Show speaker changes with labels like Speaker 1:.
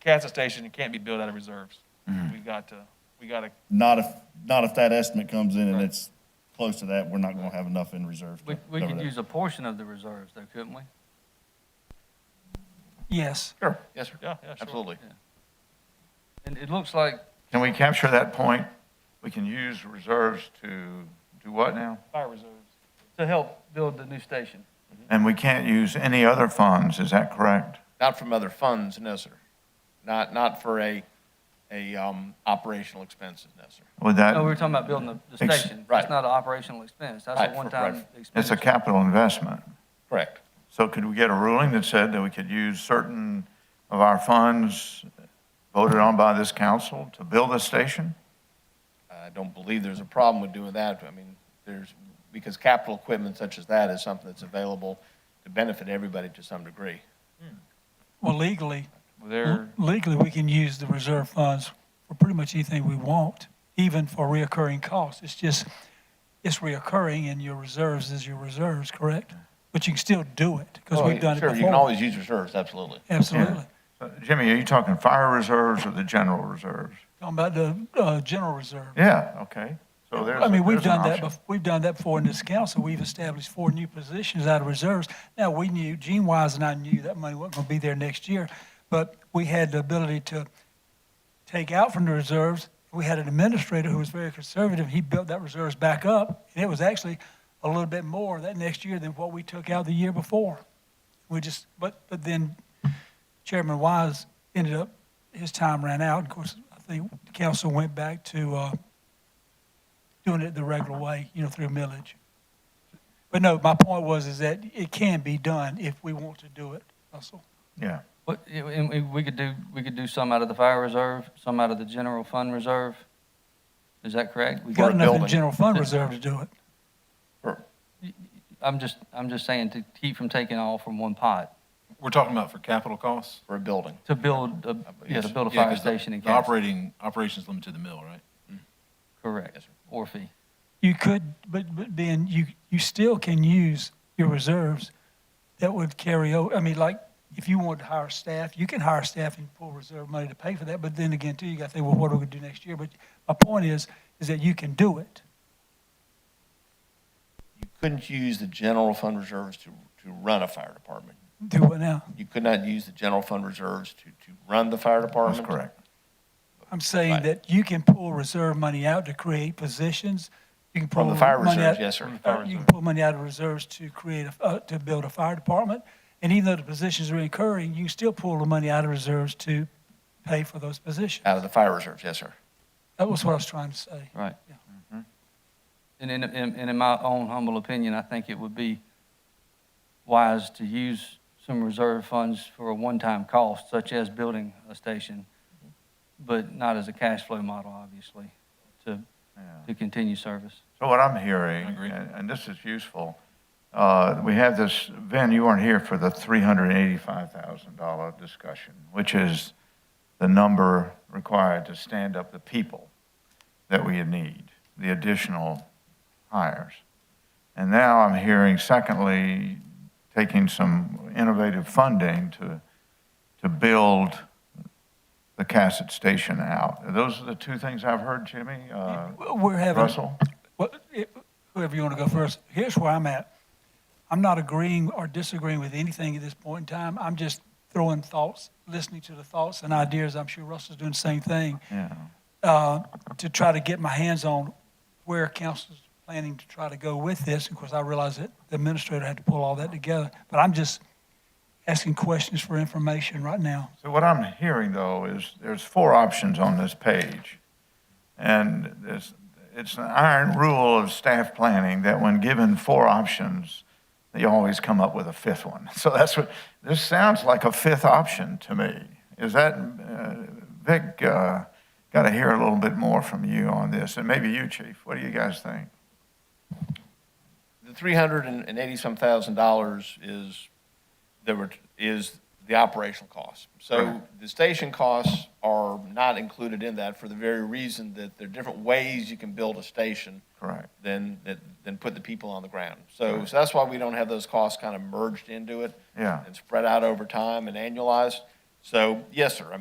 Speaker 1: CASA station, it can't be built out of reserves. We've got to, we got to,
Speaker 2: Not if, not if that estimate comes in and
Speaker 1: Right.
Speaker 2: it's close to that, we're not gonna have enough in reserves
Speaker 3: We,
Speaker 2: to
Speaker 3: we
Speaker 2: cover
Speaker 3: could
Speaker 2: that.
Speaker 3: use a portion of the reserves though, couldn't we?
Speaker 4: Yes.
Speaker 5: Sure, yes, sir.
Speaker 1: yeah, yeah, sure.
Speaker 5: Absolutely.
Speaker 3: And it looks like
Speaker 5: Can we capture that point? We can use reserves to do what now?
Speaker 1: fire reserves.
Speaker 3: to help build the new station.
Speaker 5: And we can't use any other funds, is that correct?
Speaker 6: Not from other funds, no, sir. Not, not for a, a, um, operational expenses, no, sir.
Speaker 5: Would that?
Speaker 3: No, we were talking about building the, the
Speaker 5: Uh, Ex-
Speaker 3: station. That's
Speaker 6: right.
Speaker 3: not an operational expense. That's
Speaker 6: Right,
Speaker 3: a
Speaker 6: for-
Speaker 3: one-time
Speaker 6: right.
Speaker 3: expense.
Speaker 5: It's a capital investment.
Speaker 6: Correct.
Speaker 5: So could we get a ruling that said that we could use certain of our funds voted on by this council to build a station?
Speaker 6: I don't believe there's a problem with doing that. I mean, there's, because capital equipment such as that is something that's available to benefit everybody to some degree.
Speaker 4: Well, legally,
Speaker 1: They're,
Speaker 4: legally, we can use the reserve funds for pretty much anything we want, even for reoccurring costs. It's just, it's reoccurring and your reserves is your reserves, correct? But you can still do it because
Speaker 6: Oh,
Speaker 4: we've done it
Speaker 6: Sure, you can
Speaker 4: before.
Speaker 6: always use reserves, absolutely.
Speaker 4: Absolutely.
Speaker 5: Uh, Jimmy, are you talking fire reserves or the general reserves?
Speaker 4: Talking about the, uh, general reserve.
Speaker 5: Yeah, okay. So there's,
Speaker 4: I mean, we've
Speaker 5: there's an
Speaker 4: done that,
Speaker 5: option.
Speaker 4: bef- we've done that before in this council. We've established four new positions out of reserves. Now, we knew, Gene Wise and I knew that money wasn't going to be there next year, but we had the ability to take out from the reserves. We had an administrator who was very conservative. He built that reserves back up, and it was actually a little bit more that next year than what we took out the year before. We just, but, but then Chairman Wise ended up, his time ran out. Of course, I think the council went back to, uh, doing it the regular way, you know, through millage. But no, my point was is that it can be done if we want to do it, Russell.
Speaker 5: Yeah.
Speaker 3: But, yeah, and we- we could do, we could do some out of the fire reserve, some out of the general fund reserve. Is that correct? We
Speaker 4: We've got
Speaker 3: got,
Speaker 4: enough in
Speaker 6: building.
Speaker 4: general fund reserve to do it.
Speaker 3: I'm just, I'm just saying to keep from taking all from one pot,
Speaker 7: We're talking about for capital costs?
Speaker 6: For a building,
Speaker 3: to build, a yeah, to build a
Speaker 7: Yeah,
Speaker 3: fire
Speaker 7: 'cause the-
Speaker 3: station in
Speaker 7: the
Speaker 3: Cass.
Speaker 7: Operating, operations limited to the mill, right?
Speaker 3: Correct, or fee.
Speaker 4: You could, but, but then you, you still can use your reserves that would carry over. I mean, like, if you wanted to hire staff, you can hire staff and pull reserve money to pay for that. But then again, too, you got to think, well, what are we going to do next year? But my point is, is that you can do it.
Speaker 6: you couldn't use the general fund reserves to, to run a fire department.
Speaker 4: Do it now.
Speaker 6: You could not use the general fund reserves to, to run the fire
Speaker 5: That's
Speaker 6: department.
Speaker 5: correct.
Speaker 4: I'm saying
Speaker 6: Right.
Speaker 4: that you can pull reserve money out to create positions. You can pull
Speaker 6: From the fire
Speaker 4: money
Speaker 6: reserves,
Speaker 4: out-
Speaker 6: yes, sir.
Speaker 4: uh, You can pull money out of reserves to create, a- uh, to build a fire department. And even though the positions are incurring, you can still pull the money out of reserves to pay for those positions.
Speaker 6: Out of the fire reserves, yes, sir.
Speaker 4: That was what I was trying to say.
Speaker 3: Right. Mm-hmm.
Speaker 4: Yeah.
Speaker 3: And in, in, and in my own humble opinion, I think it would be wise to use some reserve funds for a one-time cost, such as building a station, but not as a cash flow model, obviously, to,
Speaker 5: Yeah.
Speaker 3: to continue service.
Speaker 5: So what I'm hearing,
Speaker 7: I agree.
Speaker 5: and and this is useful, uh, we have this, Ben, you weren't here for the $385,000 discussion, which is the number required to stand up the people that we need, the additional hires. And now I'm hearing, secondly, taking some innovative funding to, to build the Cassett Station out. Those are the two things I've heard, Jimmy. Uh,
Speaker 4: We're having.
Speaker 5: Russell?
Speaker 4: Well, it- whoever you want to go first, here's where I'm at. I'm not agreeing or disagreeing with anything at this point in time. I'm just throwing thoughts, listening to the thoughts and ideas. I'm sure Russell's doing the same thing.
Speaker 5: Yeah.
Speaker 4: uh, to try to get my hands on where council's planning to try to go with this. Of course, I realize that the administrator had to pull all that together, but I'm just asking questions for information right now.
Speaker 5: So what I'm hearing, though, is there's four options on this page. And there's, it's an iron rule of staff planning that when given four options, you always come up with a fifth one. So that's what, this sounds like a fifth option to me. Is that, uh, Vic, uh, got to hear a little bit more from you on this, and maybe you, chief. What do you guys think?
Speaker 6: The three hundred and eighty-some thousand dollars is, there were, is the operational cost. So the station costs are not included in that for the very reason that there are different ways you can build a station
Speaker 5: Correct.
Speaker 6: than, than- than put the people on the ground. So, so that's why we don't have those costs kind of merged into it
Speaker 5: Yeah.
Speaker 6: and spread out over time and annualized. So, yes, sir, I mean,